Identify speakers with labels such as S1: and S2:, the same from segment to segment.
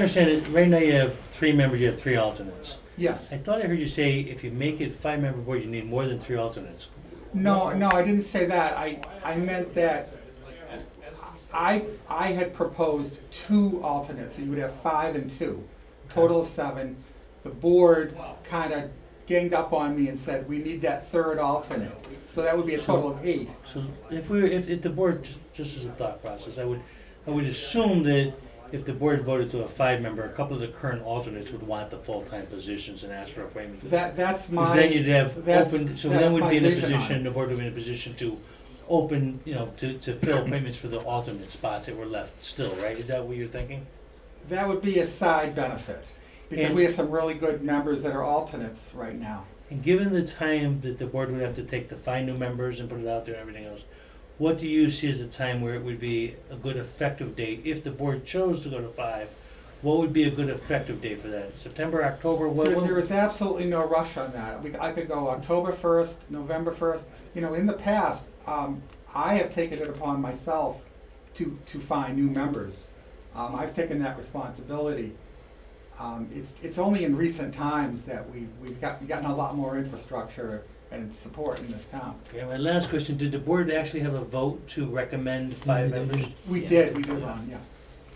S1: understand it, right now you have three members, you have three alternates.
S2: Yes.
S1: I thought I heard you say if you make it five-member board, you need more than three alternates.
S2: No, no, I didn't say that. I, I meant that I, I had proposed two alternates, so you would have five and two, total of seven. The board kind of ganged up on me and said, we need that third alternate. So that would be a total of eight.
S1: So if we, were- if, if the board, just, just as a thought process, I would, I would assume that if the board voted to a five-member, a couple of the current alternates would want the full-time positions and ask for appointments.
S2: That, that's
S1: Because then you'd
S2: my,
S1: have
S2: that's-
S1: open, so
S2: that's
S1: then we'd
S2: my
S1: be in a
S2: vision on
S1: position,
S2: it.
S1: the board would be in a position to open, you know, to, to fill appointments for the alternate spots that were left still, right? Is that what you're thinking?
S2: that would be a side benefit. Because
S1: And-
S2: we have some really good members that are alternates right now.
S1: And given the time that the board would have to take to find new members and put it out there and everything else, what do you see as a time where it would be a good effective date? If the board chose to go to five, what would be a good effective date for that? September, October, what?
S2: There,
S1: what-
S2: there is absolutely no rush on that. We, I could go October first, November first. You know, in the past, um, I have taken it upon myself to, to find new members. Um, I've taken that responsibility. Um, it's, it's only in recent times that we've, we've got, gotten a lot more infrastructure and support in this town.
S1: Okay, my last question, did the board actually have a vote to recommend five members?
S2: We
S3: Yeah.
S2: did, we did one, yeah.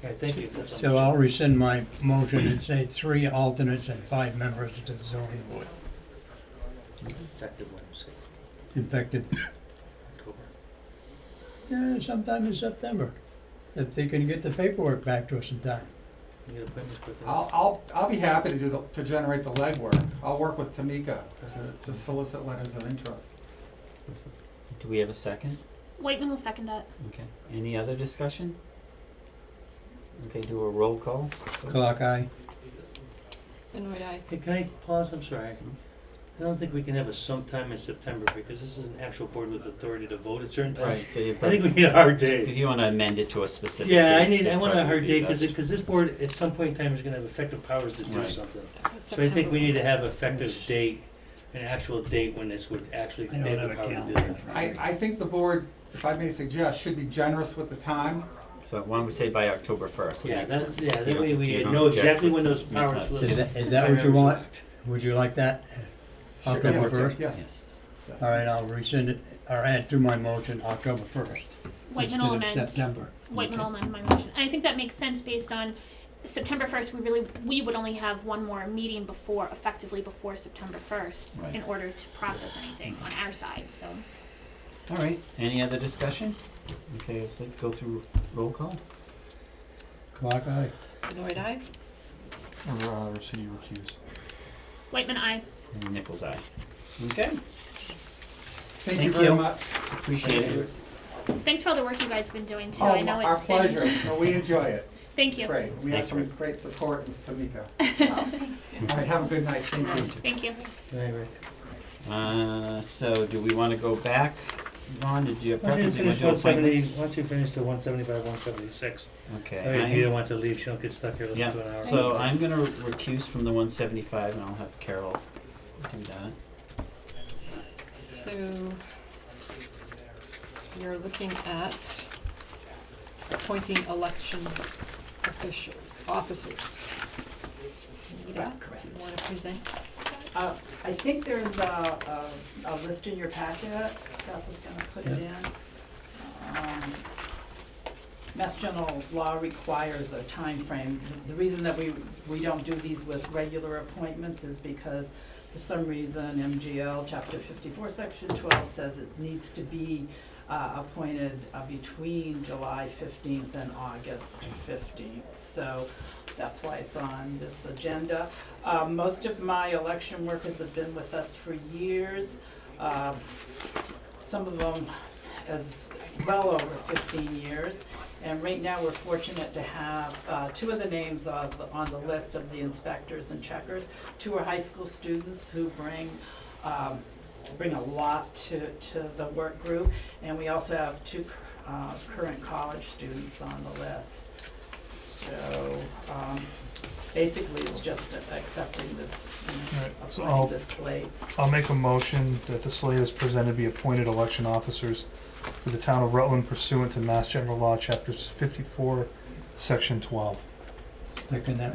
S1: All right, thank you. That's all.
S4: So I'll rescind my motion and say three alternates and five members to the zoning board,
S1: Effective one, say,
S4: effective,
S1: October.
S4: eh, sometime in September. If they can get the paperwork back to us in time.
S1: You get appointments quickly.
S2: I'll, I'll, I'll be happy to do, the- to generate the legwork. I'll work with Tamika to- to solicit letters of interest.
S3: Do we have a second?
S5: Whiteman will second that.
S3: Okay. Any other discussion? Okay, do a roll call.
S4: Clock eye.
S6: Benoit eye.
S1: Hey, can I pause? I'm sorry. I don't think we can have a sometime in September because this is an actual board with authority to vote at certain times.
S3: So you
S1: I think we need a hard
S3: if
S1: date.
S3: you want to amend it to a specific
S1: Yeah, I
S3: date,
S1: need, I
S3: that's
S1: want a
S3: probably
S1: hard
S3: be
S1: date because,
S3: best.
S1: because this board at some point in time is gonna have effective powers to do
S3: Right.
S1: something.
S6: uh,
S1: So I think we need to have effective date, an actual date when this would actually,
S4: I don't
S1: they have
S4: have
S1: the
S4: a
S1: power to do
S4: calendar in
S1: that.
S4: front of
S2: I,
S4: me.
S2: I think the board, if I may suggest, should be generous with the time.
S3: So why don't we say by October first?
S1: Yeah,
S3: makes
S1: that,
S3: sense.
S1: yeah,
S3: You
S1: that
S3: don't-
S1: way
S3: you
S1: we
S3: don't
S1: know
S3: object
S1: exactly
S3: with-
S1: when those
S3: with
S1: powers
S3: us.
S1: will.
S4: Is that- is that what you want? Would you like that?
S2: Sure,
S4: October
S2: yes,
S4: first?
S2: Yes. yes.
S4: All right, I'll rescind it, or add to my motion October first
S5: Whiteman
S4: instead
S5: will
S4: of
S5: amend.
S4: September.
S5: Whiteman
S3: Okay.
S5: will amend my motion. And I think that makes sense based on September first, we really, we would only have one more meeting before, effectively before September first
S3: Right.
S5: in order to process anything on our side, so.
S3: All right. Any other discussion? Okay, let's like go through roll call.
S4: Clock eye.
S6: Benoit eye.
S7: Uh, Rossini recused.
S5: Whiteman, I.
S3: And Nichols eye. Okay.
S2: Thank you
S3: Thank
S2: very
S3: you.
S2: much.
S3: Appreciate it.
S5: Thanks for all the work you guys have been doing too.
S2: Oh,
S5: I know
S2: our
S5: it's been.
S2: pleasure. No, we enjoy it.
S5: Thank
S2: It's
S5: you.
S2: great. We have
S3: Thanks,
S2: some
S3: Rick.
S2: great support with Tamika.
S6: Oh, thanks.
S2: All right, have a good night. Thank you.
S5: Thank you.
S3: Uh, so do we want to go back? Vaughn, did you have
S1: Why don't you
S3: preference? You wanna
S1: finish one
S3: do
S1: seventy,
S3: appointments?
S1: why don't you finish the one seventy-five, one seventy-six? I
S3: Okay.
S1: mean,
S3: I-
S1: you don't want to leave, she don't get stuck here listening
S3: Yeah,
S1: to an hour.
S3: so I'm gonna recuse from the one seventy-five and I'll have Carol do that.
S6: So you're looking at appointing election officials, officers. Anita, do you want to present?
S8: Uh, I think there's a, a, a list in your packet, Beth was gonna put it in. Um, Mass general law requires a time frame. The reason that we, we don't do these with regular appointments is because for some reason MGL chapter fifty-four, section twelve says it needs to be, uh, appointed uh, between July fifteenth and August fifteenth. So that's why it's on this agenda. Uh, most of my election workers have been with us for years. Uh, some of them as well over fifteen years. And right now, we're fortunate to have, uh, two of the names of, the- on the list of the inspectors and checkers. Two are high school students who bring, um, bring a lot to, to the work group. And we also have two, uh, current college students on the list. So, um, basically, it's just accepting this, you know,
S7: Alright, so I'll-
S8: applying this slate.
S7: I'll make a motion that the slate is presented be appointed election officers for the town of Rutland pursuant to Mass General Law, chapters fifty-four, section twelve.
S4: Second that